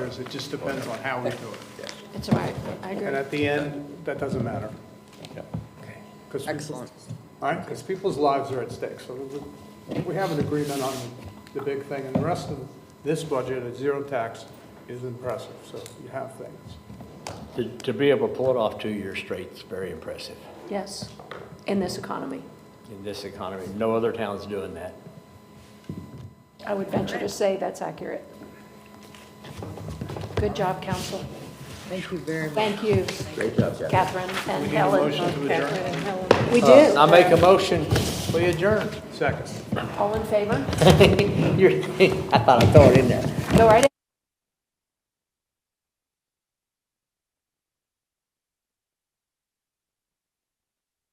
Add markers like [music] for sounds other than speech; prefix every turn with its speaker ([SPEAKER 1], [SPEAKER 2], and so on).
[SPEAKER 1] It just depends on how we do it.
[SPEAKER 2] It's all right, I
[SPEAKER 1] And
[SPEAKER 2] agree.
[SPEAKER 1] at the end, that doesn't matter. Because, all
[SPEAKER 3] Excellent.
[SPEAKER 1] right, because people's lives are at stake. So we- we have an agreement on the big thing, and the rest of this budget at zero tax is impressive, so you have things.
[SPEAKER 4] To, to be able to pull it off two years straight is very impressive
[SPEAKER 2] Yes, in this economy.
[SPEAKER 4] in this economy. No other town's doing that.
[SPEAKER 2] I would venture to say that's accurate. Good job, council.
[SPEAKER 3] Thank you very much.
[SPEAKER 2] Thank you,
[SPEAKER 5] Great job, Jeff.
[SPEAKER 2] Catherine and
[SPEAKER 1] Need a motion
[SPEAKER 2] Helen.
[SPEAKER 1] to adjourn?
[SPEAKER 2] We
[SPEAKER 4] Uh, I
[SPEAKER 2] do.
[SPEAKER 4] make a motion, we adjourn.
[SPEAKER 1] Second.
[SPEAKER 4] [laughs]
[SPEAKER 2] All in favor?
[SPEAKER 4] You're, [laughs] I thought I throw it in there.
[SPEAKER 2] Go right